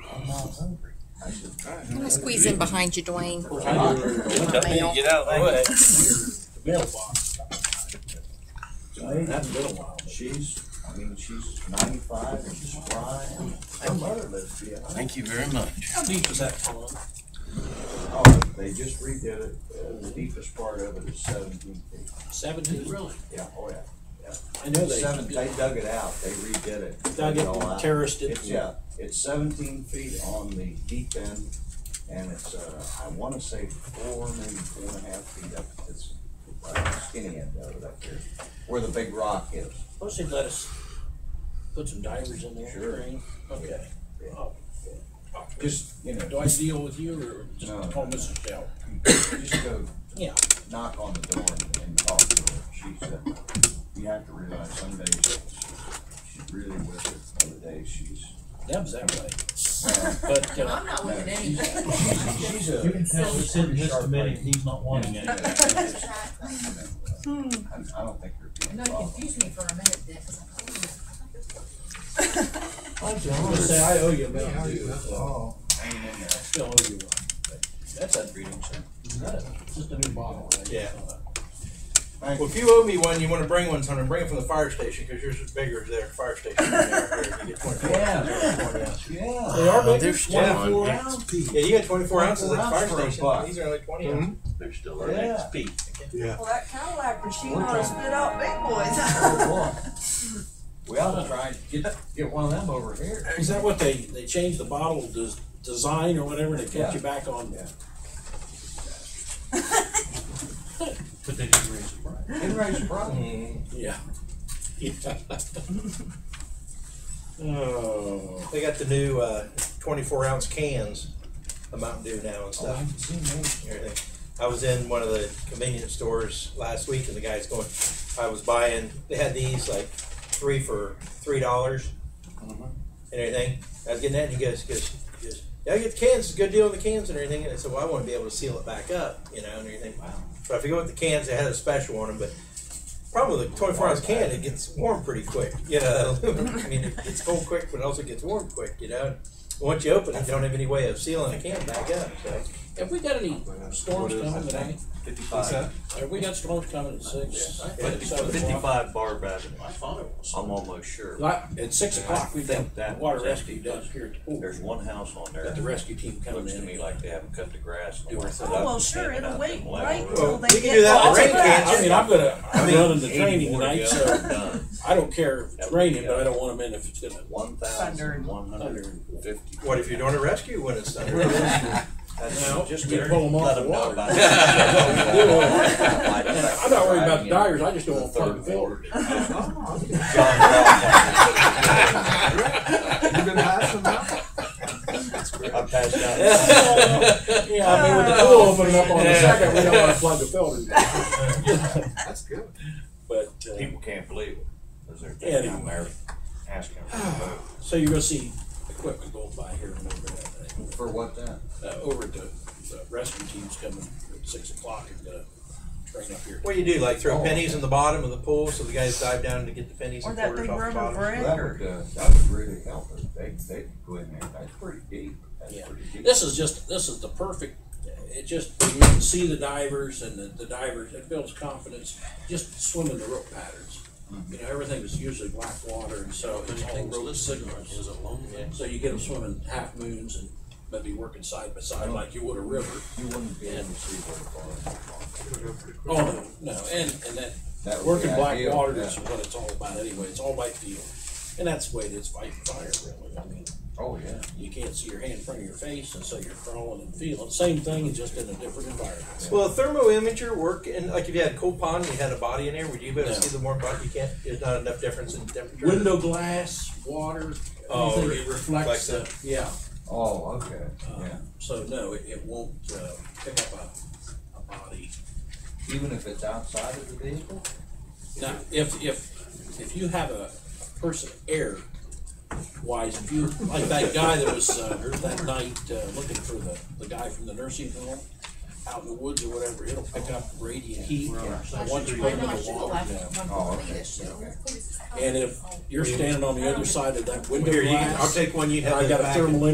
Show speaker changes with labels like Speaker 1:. Speaker 1: I'm hungry. I should.
Speaker 2: I'm gonna squeeze in behind you, Dwayne.
Speaker 3: Tell me to get out of the way.
Speaker 1: The mailbox. That's been a while. She's, I mean, she's ninety-five and she's fine. Her mother lives here.
Speaker 3: Thank you very much.
Speaker 4: How deep is that pond?
Speaker 1: Oh, they just redid it. Uh, The deepest part of it is seventeen feet.
Speaker 4: Seventeen? Really?
Speaker 1: Yeah, oh yeah.
Speaker 4: I know they
Speaker 1: Seven, they dug it out. They redid it.
Speaker 4: dug it,
Speaker 1: all
Speaker 4: and
Speaker 1: out.
Speaker 4: terraced it.
Speaker 1: It's, yeah, it's seventeen feet on the deep end, and it's, uh, I wanna say four, maybe four and a half feet up at this uh, skinny end of it up here, where the big rock is.
Speaker 4: Suppose they'd let us put some divers in there.
Speaker 1: Sure.
Speaker 4: Okay.
Speaker 1: Yeah.
Speaker 4: Oh,
Speaker 1: Just, you
Speaker 4: Do
Speaker 1: know,
Speaker 4: I deal with you or just
Speaker 1: No.
Speaker 4: call Mrs. Dell?
Speaker 1: just go
Speaker 4: Yeah.
Speaker 1: knock on the door and- and talk to her. She said, you have to realize some days she's- she's really with it, other days she's.
Speaker 4: Deb's that way. But, uh,
Speaker 5: not
Speaker 1: no, she's- She's a.
Speaker 6: You can tell we're sitting
Speaker 1: pretty
Speaker 6: just a
Speaker 1: sharp
Speaker 6: minute,
Speaker 1: lady.
Speaker 6: he's not wanting it.
Speaker 1: I, Hmm. I don't think you're being
Speaker 5: No, you
Speaker 1: followed.
Speaker 5: confused me for a minute, Dick, 'cause I'm like, oh,
Speaker 4: I'm gonna say I owe you a
Speaker 7: Yeah,
Speaker 4: bill.
Speaker 7: you- oh,
Speaker 1: Hanging in there.
Speaker 4: I still owe you one. but That's unreading, sir. Just a new bottle. right?
Speaker 3: Yeah.
Speaker 1: Thank
Speaker 3: Well,
Speaker 1: you.
Speaker 3: if you owe me one, you want to bring one, Hunter, bring it from the fire station because yours is bigger there, fire station. than there. Here, you get 24
Speaker 1: Yeah. Yeah.
Speaker 4: They are big,
Speaker 3: there's
Speaker 4: twenty-four ounce.
Speaker 3: Yeah, you got 24 ounces at the fire
Speaker 1: For a
Speaker 3: station.
Speaker 1: buck.
Speaker 3: These are only 20 ounces.
Speaker 8: They're still our
Speaker 1: Yeah.
Speaker 8: next peak.
Speaker 5: Well, that Cadillac machine
Speaker 1: We're
Speaker 5: ought to
Speaker 1: trying-
Speaker 5: spit out big boys.
Speaker 1: Boy. We ought to try and get, get one of them over here.
Speaker 4: Is that what they, they changed the bottle des- design or whatever, and they
Speaker 1: Yeah.
Speaker 4: kept you back on?
Speaker 1: Yeah.
Speaker 6: But they didn't raise it right.
Speaker 1: It raises problems.
Speaker 3: Mm-hmm.
Speaker 4: Yeah. Yeah. Oh.
Speaker 3: They got the new uh, 24 ounce cans of Mountain Dew now and
Speaker 1: Oh, I
Speaker 3: stuff.
Speaker 1: haven't seen those.
Speaker 3: everything. I was in one of the convenience stores last week, and the guy's going, I was buying, they had these like three for three dollars and everything. I was getting that, and he goes, he goes, he goes, yeah, I get the cans, it's a good deal on the cans and everything. And I said, well, I want to be able to seal it back up, you know, and everything. Wow. So I forget what the cans, they had a special on them, but problem with the 24 ounce can, it gets warm pretty quick. You know, that aluminum. I mean, it gets cold quick, but it also gets warm quick, you know. Once you open it, you don't have any way of sealing a can back up. So.
Speaker 4: Have we got any storms coming today?
Speaker 3: What's that?
Speaker 8: Fifty-five,
Speaker 4: Have we got storms coming at six?
Speaker 8: fifty-
Speaker 4: Seven o'clock?
Speaker 8: fifty-five bar rabbit. I'm almost sure.
Speaker 4: Like, at six o'clock, we
Speaker 8: think
Speaker 4: got
Speaker 8: that
Speaker 4: water
Speaker 8: was actually
Speaker 4: rescue down here at the pool.
Speaker 8: There's one house on there.
Speaker 4: Got the rescue team coming
Speaker 8: Looks to me
Speaker 4: in.
Speaker 8: like they haven't cut the grass.
Speaker 4: Do it.
Speaker 5: Oh, well, sure, it'll wait, right
Speaker 3: Well,
Speaker 5: till they
Speaker 3: we
Speaker 5: get.
Speaker 3: can do that
Speaker 5: all
Speaker 3: with rain
Speaker 5: the way back.
Speaker 3: cans.
Speaker 4: I mean, I'm gonna, I'm
Speaker 8: mean,
Speaker 4: running the
Speaker 8: 80
Speaker 4: training
Speaker 8: more
Speaker 4: tonight,
Speaker 8: to go.
Speaker 4: so
Speaker 8: Done.
Speaker 4: I don't care if it's
Speaker 8: That
Speaker 4: raining,
Speaker 8: would be
Speaker 4: but I
Speaker 8: good.
Speaker 4: don't want them in if it's gonna.
Speaker 8: One thousand one hundred and fifty.
Speaker 3: What if you're doing a rescue when it's done?
Speaker 4: No,
Speaker 1: Just
Speaker 4: you
Speaker 1: get
Speaker 4: pull them off
Speaker 8: Let
Speaker 4: the
Speaker 8: them know
Speaker 4: water.
Speaker 8: about
Speaker 4: And
Speaker 8: it.
Speaker 4: I'm not worried about the dyers, I just don't want to plug
Speaker 8: Third
Speaker 4: the filter.
Speaker 8: ward.
Speaker 5: Oh.
Speaker 1: John
Speaker 8: Mm-hmm.
Speaker 7: you gonna have some now?
Speaker 8: I passed out.
Speaker 4: Yeah, I mean, with the pool opening up on the second, we don't wanna plug the filter.
Speaker 7: That's good.
Speaker 4: But, uh,
Speaker 8: People can't believe it. 'cause they're
Speaker 4: Yeah, they-
Speaker 8: down there asking for a vote.
Speaker 4: so you're gonna see equipment going by here and over that day.
Speaker 1: For what then?
Speaker 4: uh, over to the rescue team's coming at six o'clock and gonna train up here.
Speaker 3: What do you do? Like throw pennies in the bottom of the pool so the guys dive down to get the pennies
Speaker 5: Or
Speaker 3: and
Speaker 5: that
Speaker 3: quarters
Speaker 5: big
Speaker 3: off the
Speaker 5: rubber
Speaker 3: bottom?
Speaker 5: brick
Speaker 1: That
Speaker 5: or.
Speaker 1: would, uh, that would really help. If They, they could go in there. That's pretty deep. That's
Speaker 4: Yeah.
Speaker 1: pretty deep.
Speaker 4: This is just, this is the perfect, it just, you can see the divers and the, the divers, it builds confidence, just swimming the rope patterns.
Speaker 1: Mm-hmm.
Speaker 4: You know, everything is usually black water and so it's all rope signals. So you get them swimming half moons and maybe working side by
Speaker 1: Oh.
Speaker 4: side like you would a river.
Speaker 1: You wouldn't be able to see what it was.
Speaker 4: Oh, no, no, and, and that
Speaker 1: That would
Speaker 4: Working
Speaker 1: be
Speaker 4: black
Speaker 1: ideal,
Speaker 4: water
Speaker 1: yeah.
Speaker 4: is what it's all about anyway. It's all by feel. And that's the way it is fighting fire, really. I mean,
Speaker 1: Oh, yeah.
Speaker 4: you can't see your hand in front of your face, and so you're crawling and feeling. Same thing, just in a different environment.
Speaker 3: Well, a thermo imager work, and like if you had a cold pond and you had a body in there, would you be able to
Speaker 4: No.
Speaker 3: see the warm body? You can't. There's not enough difference in temperature.
Speaker 4: Window glass, water,
Speaker 3: Oh,
Speaker 4: anything that reflects
Speaker 3: reflects
Speaker 4: the, yeah.
Speaker 1: Oh, okay.
Speaker 4: Uh,
Speaker 1: Yeah.
Speaker 4: So no, it, it won't uh, pick up a, a body.
Speaker 1: Even if it's outside of the vehicle?
Speaker 4: Now, if, if, if you have a person air wise, if you, like that guy that was, uh, that night, uh, looking for the, the guy from the nursing home out in the woods or whatever, it'll pick up radiant heat.
Speaker 5: I
Speaker 4: Once you
Speaker 5: should-
Speaker 4: put
Speaker 5: I
Speaker 4: it
Speaker 5: know,
Speaker 4: in
Speaker 5: I
Speaker 4: the
Speaker 5: should've
Speaker 4: water,
Speaker 5: left
Speaker 4: yeah.
Speaker 5: one
Speaker 1: Oh,
Speaker 5: for me
Speaker 1: okay,
Speaker 5: this year.
Speaker 1: okay.
Speaker 5: Please, it's-
Speaker 4: And if you're standing on the other side of that window
Speaker 3: Here, you can, I'll
Speaker 4: glass,
Speaker 3: take one. You
Speaker 4: and
Speaker 3: have
Speaker 4: I
Speaker 3: the
Speaker 4: got a
Speaker 3: back
Speaker 4: thermal